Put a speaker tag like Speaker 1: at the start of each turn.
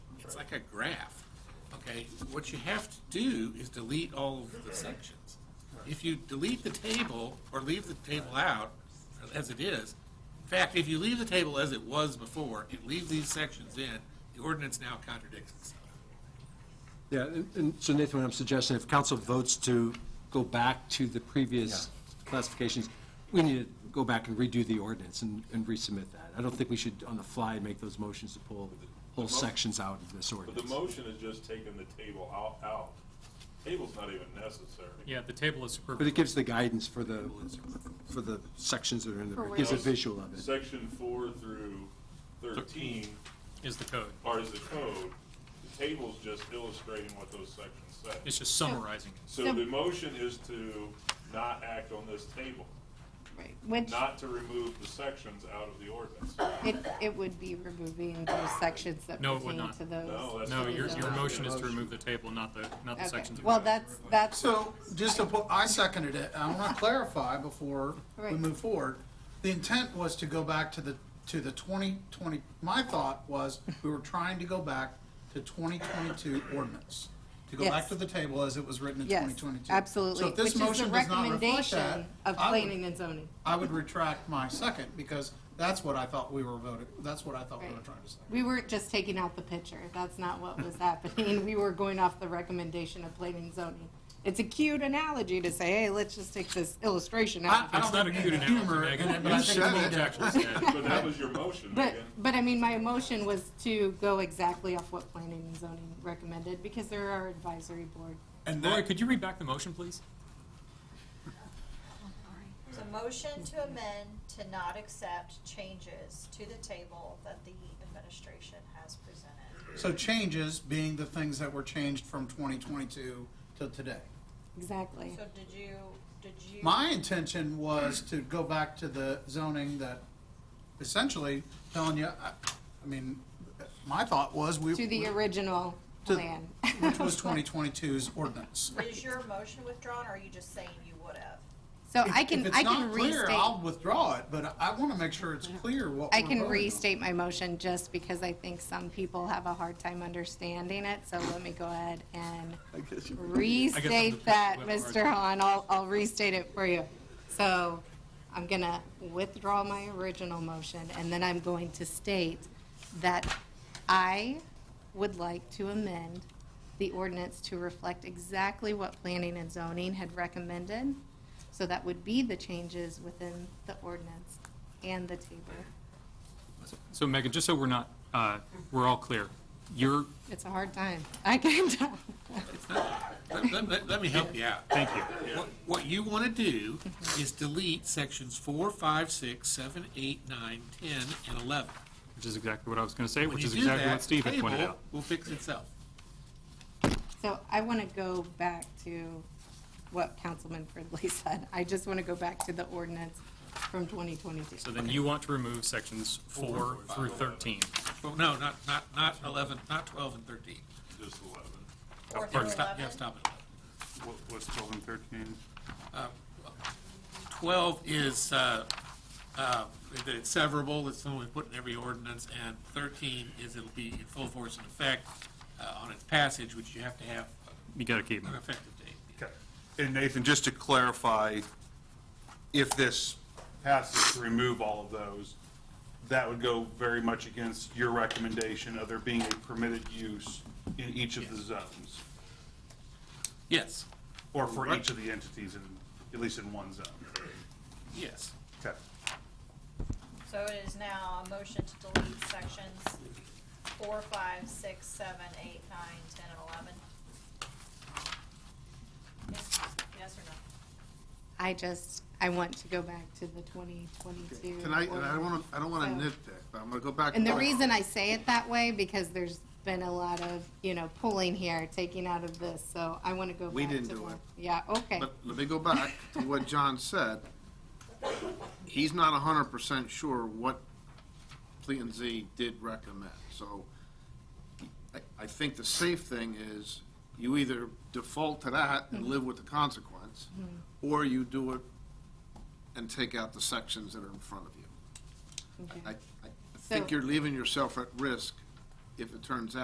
Speaker 1: it's like a graph, okay? What you have to do is delete all of the sections. If you delete the table, or leave the table out, as it is, in fact, if you leave the table as it was before, and leave these sections in, the ordinance now contradicts itself.
Speaker 2: Yeah, and- and so Nathan, what I'm suggesting, if council votes to go back to the previous classifications, we need to go back and redo the ordinance and and resubmit that. I don't think we should, on the fly, make those motions to pull whole sections out of this
Speaker 3: But the
Speaker 2: ordinance.
Speaker 3: motion is just taking the table out, out. Table's not even necessary.
Speaker 4: Yeah, the table is
Speaker 2: But it
Speaker 4: superfluous.
Speaker 2: gives the guidance for the, for the sections that are in there, it gives a visual of it.
Speaker 3: Section four through thirteen
Speaker 4: is the code.
Speaker 3: are the code. The table's just illustrating what those sections say.
Speaker 4: It's just summarizing it.
Speaker 3: So the motion is to not act on this table,
Speaker 5: Right, which
Speaker 3: not to remove the sections out of the ordinance.
Speaker 5: it, it would be removing those sections that
Speaker 4: No, it would
Speaker 5: pertain
Speaker 4: not.
Speaker 5: to those.
Speaker 3: No, that's
Speaker 4: No, your, your
Speaker 5: Yeah.
Speaker 4: motion is to remove the table, not the, not the
Speaker 5: Okay.
Speaker 4: sections. of
Speaker 5: Well,
Speaker 4: code.
Speaker 5: that's, that's,
Speaker 6: So, just to, put- I seconded it, I want to clarify before we
Speaker 5: Right.
Speaker 6: move forward. The intent was to go back to the, to the 2020, my thought was, we were trying to go back to 2022 ordinance. To go
Speaker 5: Yes.
Speaker 6: back to the table as it was written in
Speaker 5: yes,
Speaker 6: 2022. So
Speaker 5: absolutely,
Speaker 6: if
Speaker 5: which is
Speaker 6: this
Speaker 5: the
Speaker 6: motion does not reflect that,
Speaker 5: recommendation of
Speaker 6: I would-
Speaker 5: planning and zoning.
Speaker 6: I would retract my second, because that's what I thought we were voting, that's what I thought we were
Speaker 5: Right.
Speaker 6: trying to say.
Speaker 5: We weren't just taking out the picture, that's not what was happening, we were going off the recommendation of planning and zoning. It's a cute analogy to say, hey, let's just take this illustration
Speaker 6: I-
Speaker 5: out.
Speaker 6: I
Speaker 4: It's
Speaker 6: don't
Speaker 4: not a
Speaker 6: think
Speaker 4: cute
Speaker 6: there's humor
Speaker 4: analogy,
Speaker 6: in it,
Speaker 4: Megan.
Speaker 6: but I
Speaker 4: You
Speaker 6: think
Speaker 4: said
Speaker 6: we
Speaker 4: what
Speaker 6: did.
Speaker 4: you actually said.
Speaker 3: But that was your motion,
Speaker 5: But,
Speaker 3: Megan.
Speaker 5: but I mean, my motion was to go exactly off what planning and zoning recommended, because they're our advisory board.
Speaker 6: And
Speaker 4: Lori,
Speaker 6: that,
Speaker 4: could you read back the motion, please?
Speaker 7: It's a motion to amend to not accept changes to the table that the administration has presented.
Speaker 6: So changes being the things that were changed from 2022 till today.
Speaker 5: Exactly.
Speaker 7: So did you, did you?
Speaker 6: My intention was to go back to the zoning that essentially telling you, I, I mean, my thought was we.
Speaker 5: To the original
Speaker 6: to-
Speaker 5: plan.
Speaker 6: Which was 2022's ordinance.
Speaker 7: Is your motion withdrawn, or are you just saying you would have?
Speaker 5: So I can, I can
Speaker 6: If it's not clear, I'll
Speaker 5: restate,
Speaker 6: withdraw it, but I want to make sure it's clear what
Speaker 5: I
Speaker 6: we're
Speaker 5: can
Speaker 6: voting on.
Speaker 5: restate my motion just because I think some people have a hard time understanding it, so let me go ahead and restate that,
Speaker 4: I guess I'm the-
Speaker 5: Mr. Hahn, I'll, I'll restate it for you. So I'm gonna withdraw my original motion, and then I'm going to state that I would like to amend the ordinance to reflect exactly what planning and zoning had recommended. So that would be the changes within the ordinance and the table.
Speaker 4: So Megan, just so we're not, uh, we're all clear, your,
Speaker 5: It's a hard time. I can tell.
Speaker 1: Let- Let, let- let me help you out.
Speaker 4: thank you.
Speaker 1: What, what you want to do is delete sections four, five, six, seven, eight, nine, ten, and eleven.
Speaker 4: Which is exactly what I was going to say,
Speaker 1: When
Speaker 4: which
Speaker 1: you
Speaker 4: is
Speaker 1: do
Speaker 4: exactly
Speaker 1: that,
Speaker 4: what Steve had
Speaker 1: the
Speaker 4: pointed
Speaker 1: table
Speaker 4: out.
Speaker 1: Will fix itself.
Speaker 5: So I want to go back to what Councilman Fridley said. I just want to go back to the ordinance from 2022.
Speaker 4: So then you want to remove sections four through 13.
Speaker 1: Well, no, not, not, not eleven, not twelve and thirteen.
Speaker 3: Just eleven.
Speaker 7: Or
Speaker 4: Pardon.
Speaker 7: through
Speaker 1: Stop, yeah,
Speaker 7: 11?
Speaker 1: stop at
Speaker 8: What, what's twelve and thirteen?
Speaker 1: eleven. Twelve is, uh, uh, that it's severable, it's something we put in every ordinance, and thirteen is it'll be in full force and effect, uh, on its passage, which you have to have
Speaker 4: You got to keep
Speaker 1: an
Speaker 4: them.
Speaker 1: effective date.
Speaker 8: And Nathan, just to clarify, if this passes to remove all of those, that would go very much against your recommendation of there being a permitted use in each of the zones,
Speaker 1: Yes,
Speaker 8: or for each of the entities in, at least in one zone.
Speaker 1: yes.
Speaker 8: Okay.
Speaker 7: So it is now a motion to delete sections four, five, six, seven, eight, nine, ten, and eleven? Yes yes or no?
Speaker 5: I just, I want to go back to the 2022.
Speaker 9: Can I, and I don't
Speaker 5: ordinance.
Speaker 9: want to, I don't want to
Speaker 5: So-
Speaker 9: nitpick, but I'm going to go back.
Speaker 5: And the
Speaker 9: to-
Speaker 5: reason I say it that way, because there's been a lot of, you know, pulling here, taking out of this, so I want to go back to.
Speaker 9: We didn't do
Speaker 5: the-
Speaker 9: it.
Speaker 5: Yeah, okay.
Speaker 9: But let me go back to what John said. He's not hundred percent sure what Plan Z did recommend, so I, I think the safe thing is you either default to that and live with the consequence, or you do it and take out the sections that are in front of you.
Speaker 5: Okay.
Speaker 9: I, I- I think
Speaker 5: So-
Speaker 9: you're leaving yourself at risk if it turns out.